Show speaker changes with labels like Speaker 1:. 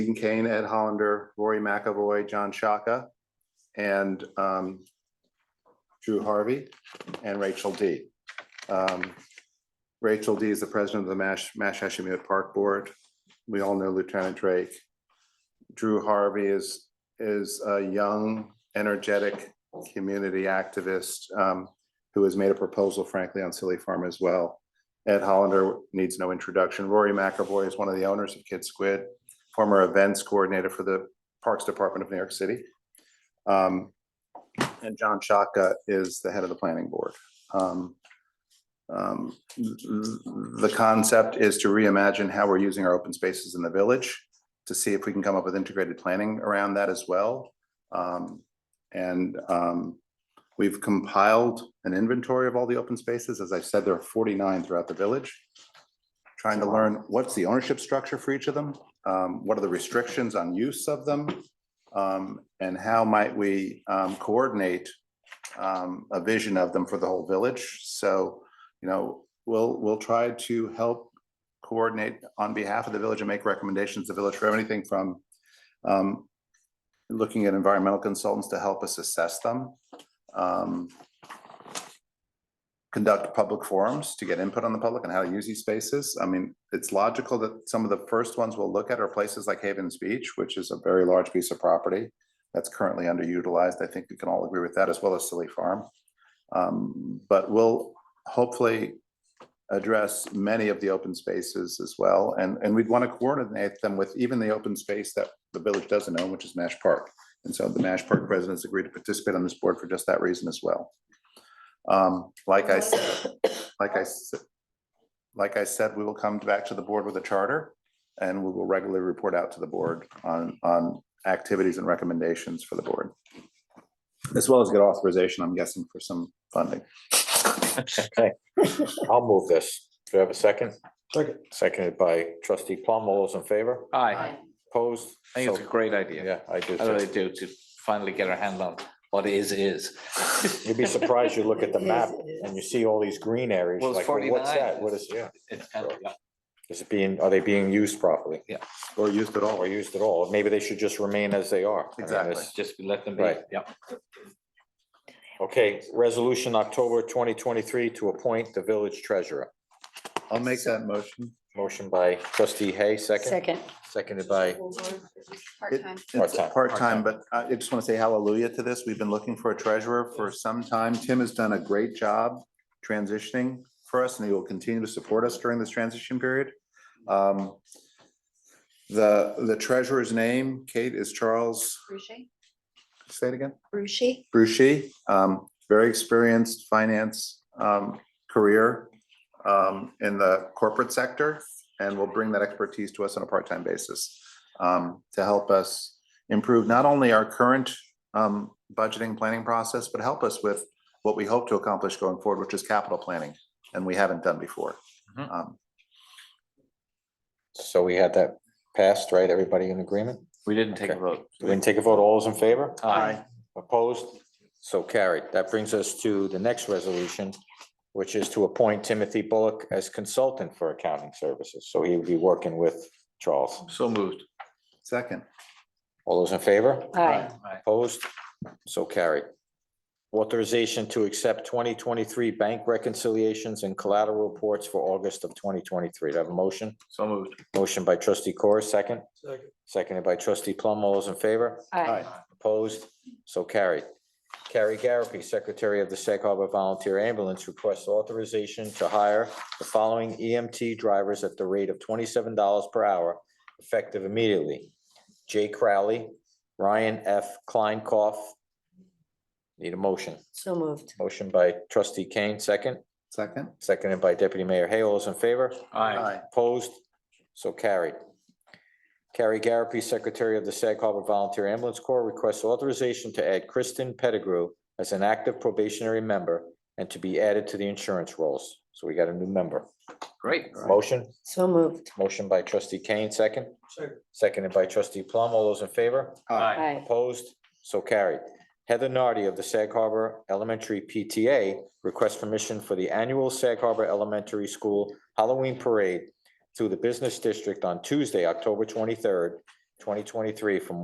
Speaker 1: Dean Kane, Ed Hollander, Rory McAvoy, John Shaka, and um, Drew Harvey and Rachel D. Um, Rachel D is the president of the Mash, Mash Hashemite Park Board. We all know Lieutenant Drake. Drew Harvey is, is a young, energetic community activist um, who has made a proposal frankly on Silly Farm as well. Ed Hollander needs no introduction. Rory McAvoy is one of the owners of Kid Squid former events coordinator for the Parks Department of New York City. Um, And John Shaka is the head of the planning board. Um, um, The concept is to reimagine how we're using our open spaces in the village to see if we can come up with integrated planning around that as well. Um, And um, we've compiled an inventory of all the open spaces. As I said, there are 49 throughout the village. Trying to learn what's the ownership structure for each of them, um, what are the restrictions on use of them? Um, and how might we, um, coordinate, um, a vision of them for the whole village? So, you know, we'll, we'll try to help coordinate on behalf of the village and make recommendations to the village for anything from, um, looking at environmental consultants to help us assess them. um, Conduct public forums to get input on the public and how to use these spaces. I mean, it's logical that some of the first ones we'll look at are places like Havens Beach, which is a very large piece of property that's currently underutilized. I think we can all agree with that, as well as Silly Farm. Um, But we'll hopefully address many of the open spaces as well. And, and we'd want to coordinate them with even the open space that the village doesn't own, which is Nash Park. And so the Nash Park presidents agreed to participate on this board for just that reason as well. Um, Like I said, like I said, like I said, we will come back to the board with a charter and we will regularly report out to the board on, on activities and recommendations for the board. As well as get authorization, I'm guessing, for some funding.
Speaker 2: Okay, I'll move this. Do I have a second? Second. Seconded by trustee Plum. All those in favor?
Speaker 3: Aye,
Speaker 2: Opposed?
Speaker 3: I think it's a
Speaker 2: So-
Speaker 3: great idea.
Speaker 2: Yeah, I do.
Speaker 3: I really
Speaker 2: too.
Speaker 3: do, to finally get our hand on what is, is.
Speaker 2: You'd be surprised. You look at the
Speaker 4: It is,
Speaker 2: map
Speaker 4: it is.
Speaker 2: and you see all these green areas.
Speaker 3: Well, it's
Speaker 2: like, well, What's
Speaker 3: 49.
Speaker 2: that? What is, yeah,
Speaker 3: It's kind of- yeah.
Speaker 2: is it being, are they being used properly?
Speaker 1: Or used at
Speaker 2: Or
Speaker 1: all.
Speaker 2: used at all? Maybe they should just remain as they are. I mean,
Speaker 1: Exactly.
Speaker 2: it's-
Speaker 3: Just let them be,
Speaker 2: Right.
Speaker 3: yeah.
Speaker 2: Okay, resolution October twenty twenty-three to appoint the village treasurer.
Speaker 1: I'll make that motion.
Speaker 2: Motion by trustee Hay, second,
Speaker 4: Second.
Speaker 2: seconded by,
Speaker 1: It-
Speaker 5: Part-time.
Speaker 1: It's
Speaker 2: Part-time.
Speaker 1: part-time, but I I just want to say hallelujah to this. We've been looking for a treasurer for some time. Tim has done a great job transitioning for us and he will continue to support us during this transition period. Um, The, the treasurer's name, Kate, is Charles,
Speaker 5: Ruche?
Speaker 1: say it again?
Speaker 5: Ruche?
Speaker 1: Brucey, um, very experienced finance, um, career, um, in the corporate sector. And will bring that expertise to us on a part-time basis, um, to help us improve not only our current, um, budgeting planning process, but help us with what we hope to accomplish going forward, which is capital planning, and we haven't done before.
Speaker 3: Mhm.
Speaker 1: Um,
Speaker 2: so we had that passed, right? Everybody in agreement?
Speaker 3: We didn't take a
Speaker 2: Okay.
Speaker 3: vote.
Speaker 2: We can take a vote. All those in favor?
Speaker 3: Aye,
Speaker 2: Opposed? So carried. That brings us to the next resolution, which is to appoint Timothy Bullock as consultant for accounting services. So he would be working with Charles.
Speaker 3: so moved.
Speaker 1: Second,
Speaker 2: All those in favor?
Speaker 4: Aye.
Speaker 3: Aye.
Speaker 2: Opposed? So carried. Authorization to accept twenty twenty-three bank reconciliations and collateral reports for August of twenty twenty-three. Do I have a motion?
Speaker 3: So moved.
Speaker 2: Motion by trustee Corr, second. Seconded by trustee Plum. All those in favor?
Speaker 4: Aye.
Speaker 2: Opposed? So carried. Carrie Garapi, Secretary of the Sag Harbor Volunteer Ambulance, requests authorization to hire the following EMT drivers at the rate of twenty-seven dollars per hour, effective immediately. Jay Crowley, Ryan F. Kleinkoff. Need a motion.
Speaker 4: So moved.
Speaker 2: Motion by trustee Kane, second,
Speaker 1: second?
Speaker 2: seconded by deputy mayor Hay. All those in favor?
Speaker 3: Aye,
Speaker 2: Opposed? So carried. Carrie Garapi, Secretary of the Sag Harbor Volunteer Ambulance Corps, requests authorization to add Kristen Pettigrew as an active probationary member and to be added to the insurance rolls. So we got a new member.
Speaker 3: great.
Speaker 2: Motion,
Speaker 4: So moved.
Speaker 2: motion by trustee Kane, second. Seconded by trustee Plum. All those in favor?
Speaker 3: Aye,
Speaker 4: Aye.
Speaker 2: Opposed? So carried. Heather Nardi of the Sag Harbor Elementary PTA requests permission for the annual Sag Harbor Elementary School Halloween Parade through the Business District on Tuesday, October twenty-third, twenty twenty-three from